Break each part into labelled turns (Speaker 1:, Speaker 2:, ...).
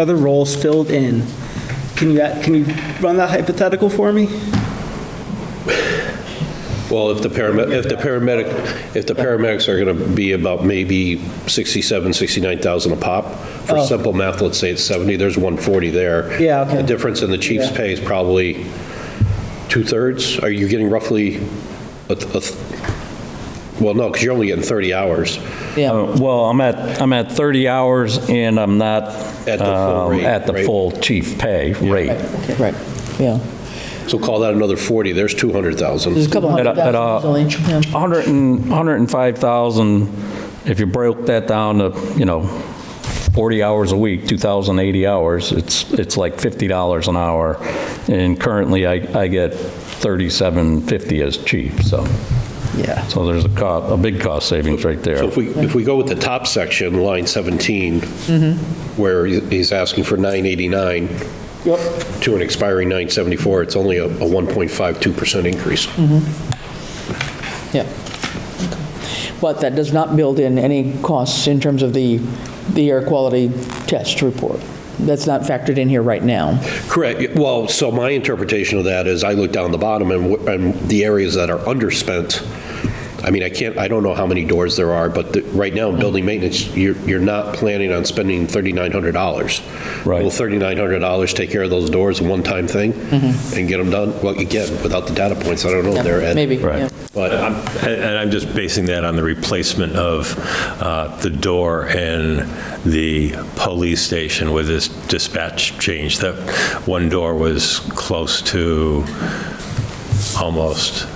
Speaker 1: other roles filled in. Can you, can you run that hypothetical for me?
Speaker 2: Well, if the paramedic, if the paramedic, if the paramedics are going to be about maybe 67, 69,000 a pop, for
Speaker 1: Oh.
Speaker 2: simple math, let's say it's 70, there's 140 there.
Speaker 1: Yeah, okay.
Speaker 2: The difference in the chief's
Speaker 1: Yeah.
Speaker 2: pay is probably two-thirds? Are you getting roughly a, th- a th- well, no, because you're only getting 30 hours.
Speaker 3: Uh, Well, I'm at, I'm at 30 hours and I'm not
Speaker 2: At the full
Speaker 3: um,
Speaker 2: rate,
Speaker 3: at the
Speaker 2: right?
Speaker 3: full chief pay rate.
Speaker 4: Right, yeah.
Speaker 2: So call that another 40, there's 200,000.
Speaker 4: There's a couple
Speaker 3: At
Speaker 4: hundred
Speaker 3: a- at a-
Speaker 4: thousand only, yeah.
Speaker 3: 100 and, 105,000, if you broke that down to, you know, 40 hours a week, 2,080 hours, it's, it's like $50 an hour. And currently, I, I get 37.50 as chief, so,
Speaker 1: Yeah.
Speaker 3: so there's a co, a big cost savings right there.
Speaker 2: So if we, if we go with the top section, line 17, where he- he's asking for 989 to an expiring 974, it's only a a 1.52% increase.
Speaker 4: Yeah. But that does not build in any costs in terms of the, the air quality test report. That's not factored in here right now.
Speaker 2: Correct. Well, so my interpretation of that is I look down the bottom and, wh- and the areas that are underspent, I mean, I can't, I don't know how many doors there are, but the- right now in building maintenance, you're, you're not planning on spending $3,900.
Speaker 3: Right.
Speaker 2: Will $3,900 take care of those doors, a one-time thing,
Speaker 3: Mm-hmm.
Speaker 2: and get them done? Well, again, without the data points, I don't know there, Ed.
Speaker 4: Maybe, yeah.
Speaker 3: Right.
Speaker 5: But I'm, and and I'm just basing that on the replacement of uh, the door in the police station with this dispatch change, that one door was close to almost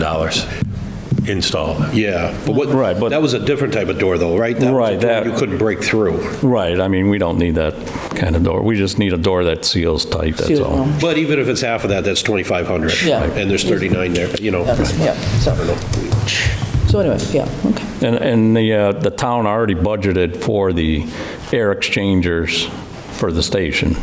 Speaker 5: $5,000 installed.
Speaker 2: Yeah, but what,
Speaker 3: Right, but-
Speaker 2: that was a different type of door though, right? That was a
Speaker 3: Right,
Speaker 2: door
Speaker 3: that-
Speaker 2: You couldn't break through.
Speaker 3: Right, I mean, we don't need that kind of door. We just need a door that seals tight, that's
Speaker 4: Seals
Speaker 3: all.
Speaker 4: well.
Speaker 2: But even if it's half of that, that's 2,500.
Speaker 4: Yeah.
Speaker 2: And there's 39 there, you know.
Speaker 4: Yeah, so, so anyway, yeah, okay.
Speaker 3: And, and the, uh, the town already budgeted for the air exchangers for the station,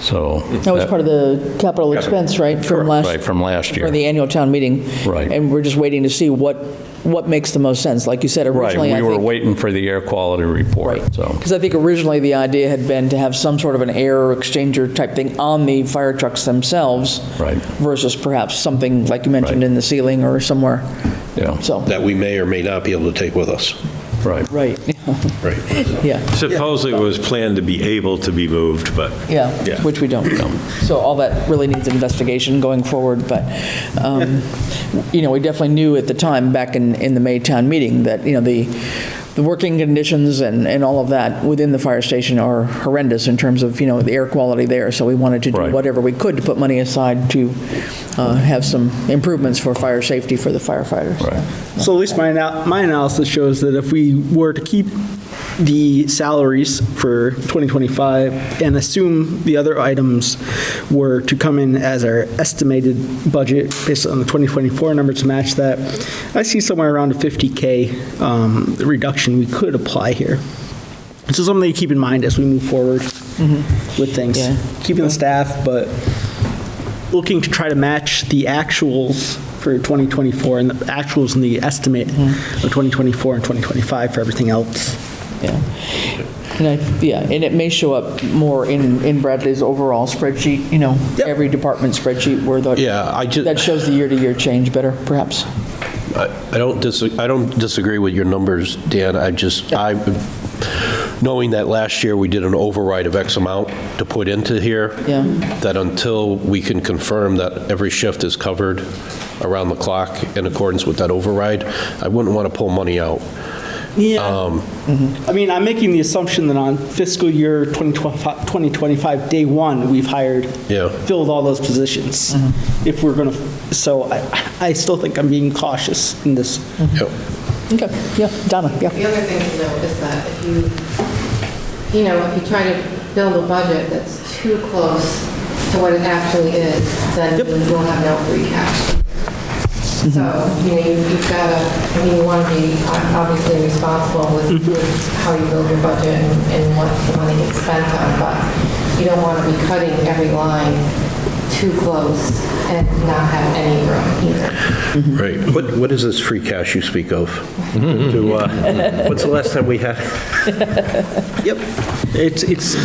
Speaker 3: so.
Speaker 4: That was part of the capital expense, right, from last?
Speaker 3: Right, from last year.
Speaker 4: For the annual town meeting.
Speaker 3: Right.
Speaker 4: And we're just waiting to see what, what makes the most sense. Like you said
Speaker 3: Right,
Speaker 4: originally, I
Speaker 3: we
Speaker 4: think.
Speaker 3: were waiting for the air quality report,
Speaker 4: Right,
Speaker 3: so.
Speaker 4: because I think originally the idea had been to have some sort of an air exchanger type thing on the fire trucks themselves.
Speaker 3: Right.
Speaker 4: Versus perhaps something, like you mentioned,
Speaker 3: Right.
Speaker 4: in the ceiling or somewhere.
Speaker 3: Yeah.
Speaker 4: So,
Speaker 2: That we may or may not be able to take with us.
Speaker 3: Right.
Speaker 4: right,
Speaker 2: Right.
Speaker 4: yeah,
Speaker 5: Supposedly it was planned to be able to be moved, but.
Speaker 4: yeah, which we don't. So all that really needs investigation going forward, but, um, you know, we definitely knew at the time, back in, in the May town meeting, that, you know, the, the working conditions and, and all of that within the fire station are horrendous in terms of, you know, the air quality there. So we wanted to do
Speaker 3: Right.
Speaker 4: whatever whatever we could to put money aside to uh, have some improvements for fire safety for the firefighters.
Speaker 3: Right.
Speaker 1: So at least my, ana- my analysis shows that if we were to keep the salaries for 2025 and assume the other items were to come in as our estimated budget based on the 2024 number to match that, I see somewhere around a 50K um, reduction we could apply here. So something to keep in mind as we move forward with things.
Speaker 4: Yeah.
Speaker 1: Keeping the staff, but looking to try to match the actuals for 2024 and the actuals and the estimate of 2024 and 2025 for everything else.
Speaker 4: Yeah. And I, yeah, and it may show up more in, in Bradley's overall spreadsheet, you know,
Speaker 1: Yep.
Speaker 4: every department spreadsheet where the.
Speaker 2: Yeah, I ju-
Speaker 4: That shows the year-to-year change better, perhaps.
Speaker 2: I I don't dis, I don't disagree with your numbers, Dan. I just, I, knowing that last year we did an override of X amount to put into here.
Speaker 4: Yeah.
Speaker 2: That until we can confirm that every shift is covered around the clock in accordance with that override, I wouldn't want to pull money out.
Speaker 1: Yeah. I mean, I'm making the assumption that on fiscal year 2025, 2025, day one, we've hired,
Speaker 2: Yeah.
Speaker 1: filled all those positions. If we're going to, so I, I still think I'm being cautious in this.
Speaker 4: Mm-hmm.
Speaker 2: Yep.
Speaker 4: Okay, yeah, Donna, yeah.
Speaker 6: The other thing to note is that if you, you know, if you try to build a budget that's too close to what it actually is, then you'll have no free cash. So, you know, you- you've got to, I mean, you want to be uh, obviously responsible with with how you build your budget and and what the money gets spent on, but you don't want to be cutting every line too close and not have any room either.
Speaker 2: Right. What, what is this free cash you speak of? To, uh, What's the last time we had?
Speaker 1: Yep. It's, it's,